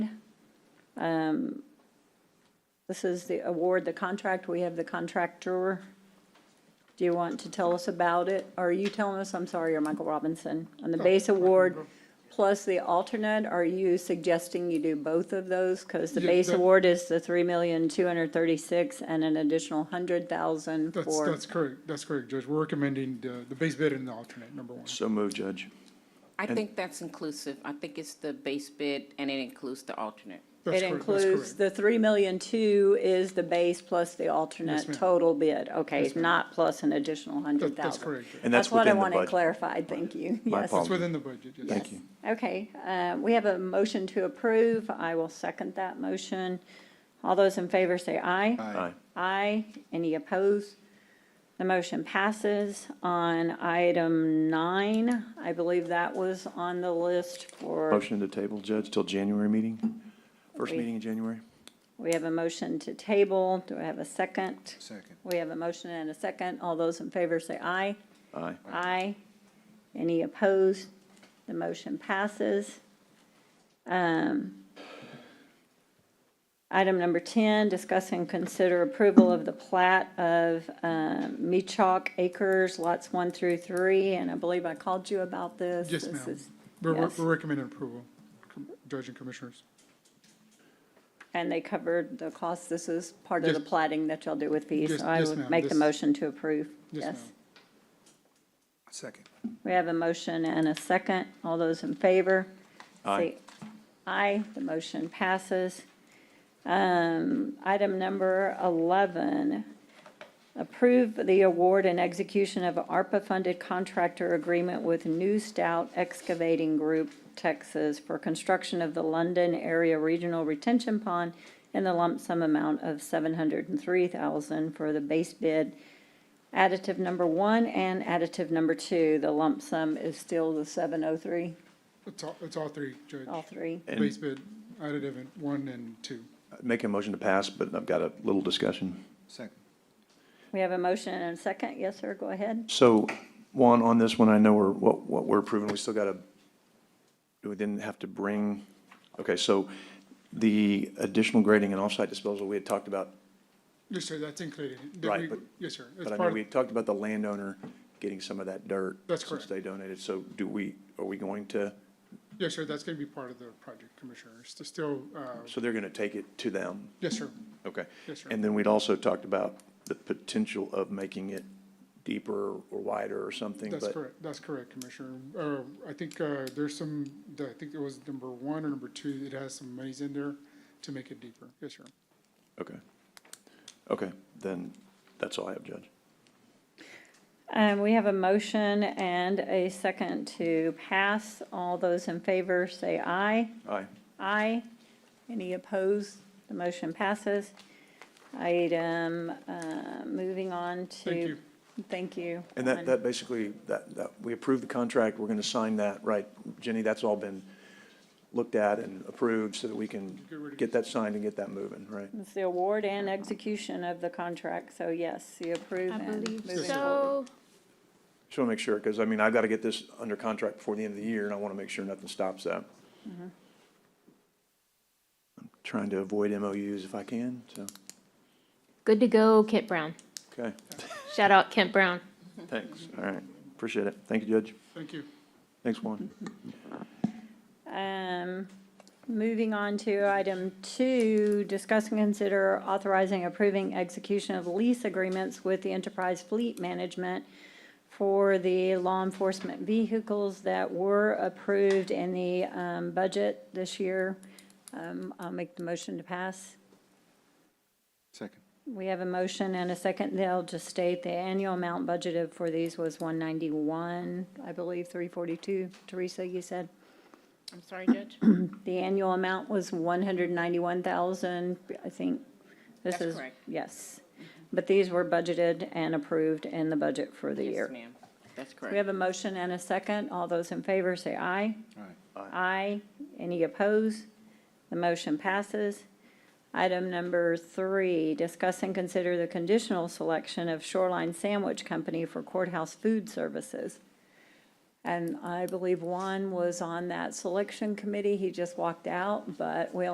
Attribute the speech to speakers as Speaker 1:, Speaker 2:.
Speaker 1: Um, This is the award, the contract. We have the contractor. Do you want to tell us about it? Or Are you telling us, I'm sorry, you're Michael Robinson, on the
Speaker 2: Oh,
Speaker 1: base award plus the alternate? Are you suggesting you do both of those? Because the
Speaker 2: Yeah,
Speaker 1: base
Speaker 2: that-
Speaker 1: award is the three million, two hundred thirty-six and an additional hundred thousand
Speaker 2: That's,
Speaker 1: for.
Speaker 2: that's correct, that's correct, Judge. We're recommending the, the base bid and the alternate, number one.
Speaker 3: So moved, Judge.
Speaker 4: I think that's inclusive. I think it's the base bid and it includes the alternate.
Speaker 2: That's
Speaker 1: It
Speaker 2: correct. That's
Speaker 1: includes,
Speaker 2: correct.
Speaker 1: the three million two is the base plus the alternate
Speaker 2: ma'am.
Speaker 1: total bid, okay,
Speaker 2: Yes, ma'am.
Speaker 1: not plus an additional hundred
Speaker 2: That-
Speaker 1: thousand.
Speaker 2: That's correct. Judge.
Speaker 3: And that's
Speaker 1: what I
Speaker 3: within the
Speaker 1: wanted
Speaker 3: budget.
Speaker 1: clarified, thank you,
Speaker 3: My
Speaker 1: yes.
Speaker 2: It's
Speaker 3: apologies.
Speaker 2: within the budget, yes.
Speaker 3: Thank you.
Speaker 1: Okay, uh, we have a motion to approve, I will second that motion. All those in favor say aye.
Speaker 3: Aye.
Speaker 1: Aye. Any opposed? The motion passes. On item nine, I believe that was on the list for,
Speaker 3: Motion to table, Judge, till January meeting? First
Speaker 1: We-
Speaker 3: meeting in January?
Speaker 1: we have a motion to table. Do I have a second?
Speaker 5: Second.
Speaker 1: We have a motion and a second. All those in favor say aye.
Speaker 3: Aye.
Speaker 1: Aye. Any opposed? The motion passes. Um, Item number 10, discuss and consider approval of the plat of um, Mechok Acres, lots 1 through 3, and I believe I called you about this.
Speaker 2: Yes,
Speaker 1: This
Speaker 2: ma'am.
Speaker 1: is-
Speaker 2: We're, we're-
Speaker 1: yes.
Speaker 2: we're recommending approval, Com- Judge and Commissioners.
Speaker 1: And they covered the cost. This is part of
Speaker 2: Yes.
Speaker 1: the plating that y'all do with these,
Speaker 2: Yes-
Speaker 1: so I
Speaker 2: yes,
Speaker 1: would
Speaker 2: ma'am.
Speaker 1: make the
Speaker 2: This-
Speaker 1: motion to approve.
Speaker 2: Yes, ma'am.
Speaker 5: Second.
Speaker 1: We have a motion and a second. All those in favor?
Speaker 3: Aye.
Speaker 1: say Aye, the motion passes. Um, Item number 11, approve the award and execution of ARPA-funded contractor agreement with New Stout Excavating Group, Texas, for construction of the London Area Regional Retention Pond in the lump sum amount of 703000 for the base bid additive number one and additive number two. The lump sum is still the 703,
Speaker 2: It's all, it's all three, Judge.
Speaker 1: all three.
Speaker 3: And-
Speaker 2: Base bid, additive, and one and two.
Speaker 3: Make a motion to pass, but I've got a little discussion.
Speaker 5: Second.
Speaker 1: We have a motion and a second. Yes, sir, go ahead.
Speaker 3: So, Juan, on this one, I know we're, what, what we're approving, we still got to, we didn't have to bring, okay, so the additional grading and offsite disposal, we had talked about,
Speaker 2: Yes, sir, that's included. Did
Speaker 3: Right,
Speaker 2: we-
Speaker 3: but-
Speaker 2: Yes, sir. It's
Speaker 3: but I
Speaker 2: part
Speaker 3: mean,
Speaker 2: of-
Speaker 3: we had talked about the landowner getting some of that dirt.
Speaker 2: That's
Speaker 3: Since
Speaker 2: correct.
Speaker 3: they donated, so do we, are we going to,
Speaker 2: Yes, sir, that's gonna be part of the project, Commissioners. There's still, uh,
Speaker 3: so they're going to take it to them?
Speaker 2: yes, sir.
Speaker 3: Okay.
Speaker 2: Yes, sir.
Speaker 3: And then we'd also talked about the potential of making it deeper or wider or something,
Speaker 2: That's
Speaker 3: but
Speaker 2: correct, that's correct, Commissioner. Uh, I think, uh, there's some, the- I think it was number one or number two that has some monies in there to make it deeper. Yes, sir.
Speaker 3: Okay. Okay, then that's all I have, Judge.
Speaker 1: Um, we have a motion and a second to pass. All those in favor say aye.
Speaker 3: Aye.
Speaker 1: Aye. Any opposed? The motion passes. Item, uh, moving on to.
Speaker 2: Thank you.
Speaker 1: Thank you.
Speaker 3: And that,
Speaker 1: Juan.
Speaker 3: that basically, that, that, we approved the contract, we're gonna sign that, right? Jenny, that's all been looked at and approved so that we can
Speaker 2: Get rid of
Speaker 3: get that signed and get that moving, right?
Speaker 1: It's the award and execution of the contract, so yes, you approve
Speaker 6: I
Speaker 1: and
Speaker 6: believe
Speaker 1: moving forward.
Speaker 6: so.
Speaker 3: Just wanna make sure, because I mean, I've gotta get this under contract before the end of the year and I wanna make sure nothing stops that. I'm trying to avoid MOUs if I can, so,
Speaker 6: Good to go, Kent Brown.
Speaker 3: okay,
Speaker 6: Shout out Kent Brown.
Speaker 3: thanks, all right, appreciate it. Thank you, Judge.
Speaker 2: Thank you.
Speaker 3: Thanks, Juan.
Speaker 1: Um, moving on to item two, discuss and consider authorizing approving execution of lease agreements with the Enterprise Fleet Management for the law enforcement vehicles that were approved in the, um, budget this year. Um, I'll make the motion to pass.
Speaker 5: Second.
Speaker 1: We have a motion and a second. They'll just state the annual amount budgeted for these was one ninety-one, I believe, three forty-two. Teresa, you said?
Speaker 4: I'm sorry, Judge?
Speaker 1: The annual amount was one hundred ninety-one thousand, I think. This
Speaker 4: That's
Speaker 1: is
Speaker 4: correct.
Speaker 1: Yes. But these were budgeted and approved in the budget for the
Speaker 4: Yes,
Speaker 1: year.
Speaker 4: ma'am. That's
Speaker 1: We
Speaker 4: correct.
Speaker 1: have a motion and a second. All those in favor say aye.
Speaker 5: All right.
Speaker 1: Aye. Any opposed? The motion passes. Item number three, discuss and consider the conditional selection of Shoreline Sandwich Company for courthouse food services. And I believe Juan was on that selection committee. He just walked out, but we